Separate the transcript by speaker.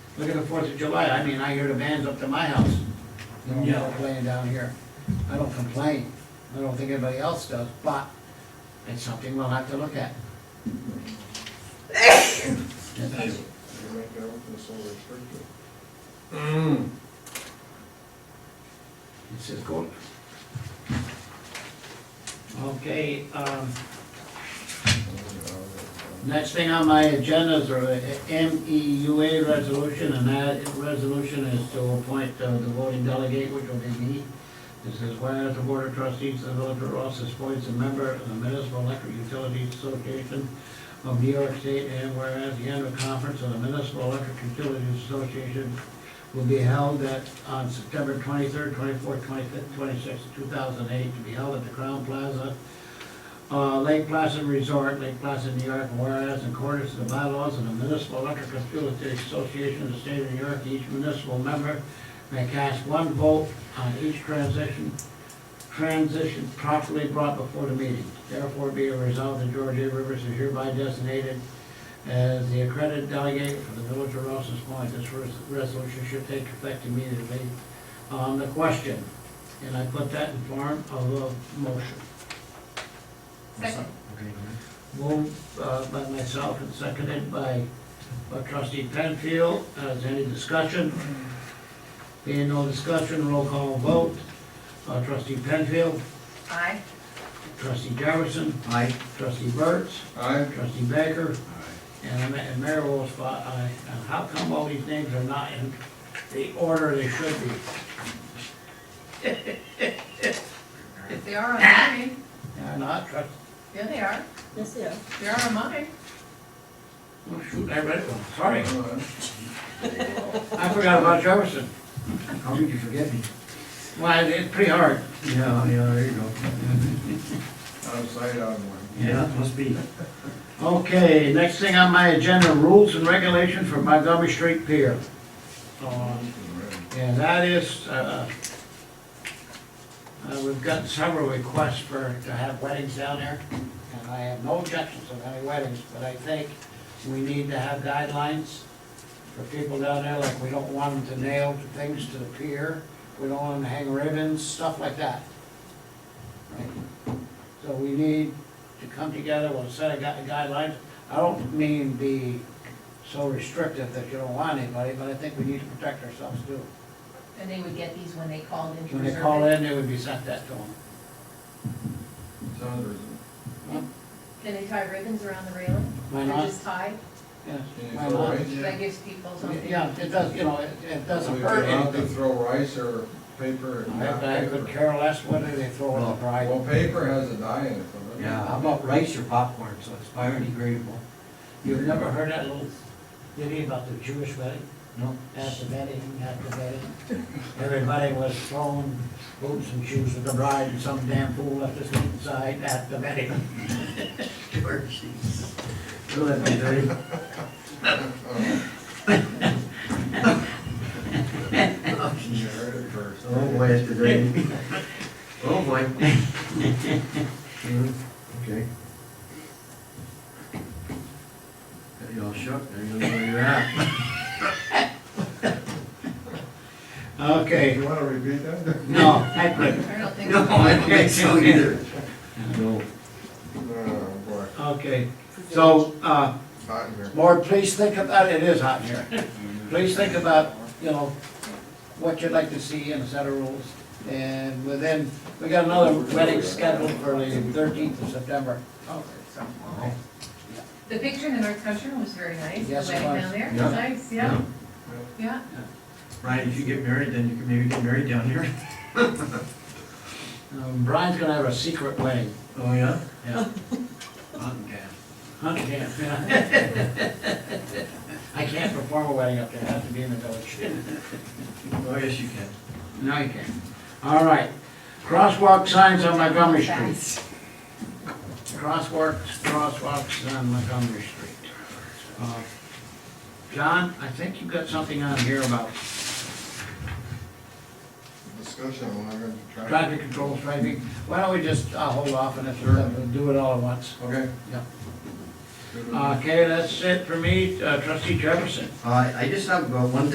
Speaker 1: Look at the Fourth of July, I mean, I hear the bands up to my house. You know,
Speaker 2: Yeah.
Speaker 1: Playing down here. I don't complain, I don't think anybody else does, but it's something we'll have to look at.
Speaker 3: You make it open, it's so restricted.
Speaker 2: Mm.
Speaker 1: It's just going. Okay, um, next thing on my agenda is a MEUA resolution, and that resolution is to appoint uh, the voting delegate, which will be me. This is whereas the Board of Trustees of the Village of Rouse's appoints a member of the Municipal Electric Utilities Association of New York State, and whereas the annual conference of the Municipal Electric Utilities Association will be held at, on September twenty-third, twenty-fourth, twenty-fifth, twenty-sixth, two thousand eight, to be held at the Crown Plaza, uh, Lake Placid Resort, Lake Placid, New York, whereas in accordance with the bylaws of the Municipal Electric Utility Association of the State of New York, each municipal member may cast one vote on each transition, transition properly brought before the meeting. Therefore, be it resolved that George A. Rivers is hereby designated as the accredited delegate for the village of Rouse's Point, this res- resolution should take effect immediately on the question. And I put that in form of a motion.
Speaker 4: Second.
Speaker 1: Moved uh, by myself and seconded by by trustee Penfield. Uh, Is any discussion? Being no discussion, roll call vote. Uh, Trustee Penfield,
Speaker 4: Aye.
Speaker 1: trustee Jefferson,
Speaker 2: Aye.
Speaker 1: trustee Burts,
Speaker 3: Aye.
Speaker 1: Trustee Baker. And I'm- And Mayor Wolf, aye. And how come all these names are not in the order they should be?
Speaker 4: If they are on mine,
Speaker 1: They're not, trust,
Speaker 4: yeah, they are.
Speaker 5: Yes, yeah.
Speaker 4: They are on mine.
Speaker 1: oh shoot, I read one, sorry.
Speaker 3: Aye.
Speaker 1: I forgot about Jefferson.
Speaker 2: How did you forget me?
Speaker 1: Well, it's pretty hard.
Speaker 2: Yeah, yeah, there you go.
Speaker 3: Outside on one.
Speaker 2: Yeah, must be.
Speaker 1: Okay, next thing on my agenda, rules and regulations for Montgomery Street Pier. Um, And that is, uh, uh, we've got several requests for, to have weddings down there, and I have no objections of any weddings, but I think we need to have guidelines for people down there, like we don't want them to nail things to the pier, we don't want them to hang ribbons, stuff like that. Right? So we need to come together with a set of gui- guidelines. I don't mean be so restrictive that you don't want anybody, but I think we need to protect ourselves too.
Speaker 4: And they would get these when they called in to
Speaker 1: When they
Speaker 4: reserve
Speaker 1: call
Speaker 4: it.
Speaker 1: in, they would be sent that to them.
Speaker 3: Sounds reasonable.
Speaker 4: Can they tie ribbons around the railing?
Speaker 1: Why
Speaker 4: Or
Speaker 1: not?
Speaker 4: just tie?
Speaker 1: Yes,
Speaker 3: Can you
Speaker 1: why
Speaker 3: throw
Speaker 1: not?
Speaker 3: rice?
Speaker 4: That gives people something.
Speaker 1: Yeah, it does, you know, it it doesn't
Speaker 3: We
Speaker 1: hurt
Speaker 3: allowed to
Speaker 1: anything.
Speaker 3: throw rice or paper and not
Speaker 1: I I could
Speaker 3: paper.
Speaker 1: care less whether they throw in the bride.
Speaker 3: Well, paper has a dye in it, doesn't it?
Speaker 2: Yeah, how about rice or popcorn, so it's biodegradable?
Speaker 1: You've never heard that little ditty about the Jewish wedding?
Speaker 2: No?
Speaker 1: At the wedding, at the wedding, everybody was throwing boots and shoes at the bride, and some damn fool left his inside at the wedding. George, geez. Don't let me dirty.
Speaker 3: You heard it first.
Speaker 2: Oh, boy, it's degrading. Oh, boy. Mhm, Okay. Got you all shook, there you go, where you're at.
Speaker 1: Okay,
Speaker 3: You wanna repeat that?
Speaker 1: no, I couldn't.
Speaker 4: I don't think.
Speaker 2: No, I don't think so either. No.
Speaker 3: Oh, boy.
Speaker 1: Okay, so, uh,
Speaker 3: Hot in here.
Speaker 1: Lord, please think about, it is hot in here. Please think about, you know, what you'd like to see in a set of rules. And within, we got another wedding scheduled for the thirteenth of September.
Speaker 4: Oh, there's some. The picture in the North Country Room was very nice.
Speaker 1: Yes, it
Speaker 4: The wedding
Speaker 1: was.
Speaker 4: Down there,
Speaker 2: Yeah.
Speaker 4: nice, yeah, yeah.
Speaker 2: Ryan, if you get married, then you can maybe get married down here.
Speaker 1: Um, Brian's gonna have a secret wedding.
Speaker 2: Oh, yeah?
Speaker 1: Yeah.
Speaker 2: Mountain cat.
Speaker 1: Hunting camp, yeah. I can't perform a wedding up there, I have to be in the village.
Speaker 2: Oh, yes, you can.
Speaker 1: No, you can't. All right, crosswalk signs on Montgomery Street.
Speaker 4: Fast.
Speaker 1: Crosswalks, crosswalks on Montgomery Street. Uh, John, I think you've got something on here about
Speaker 3: Discussion, I'm not gonna try.
Speaker 1: traffic control striping. Why don't we just uh, hold off on it, we'll do it all at once? Uh,
Speaker 3: Okay.
Speaker 1: Yeah.
Speaker 3: Good with me.
Speaker 1: Okay, that's it for me. Uh, Trustee Jefferson?
Speaker 2: Uh, I just have uh, one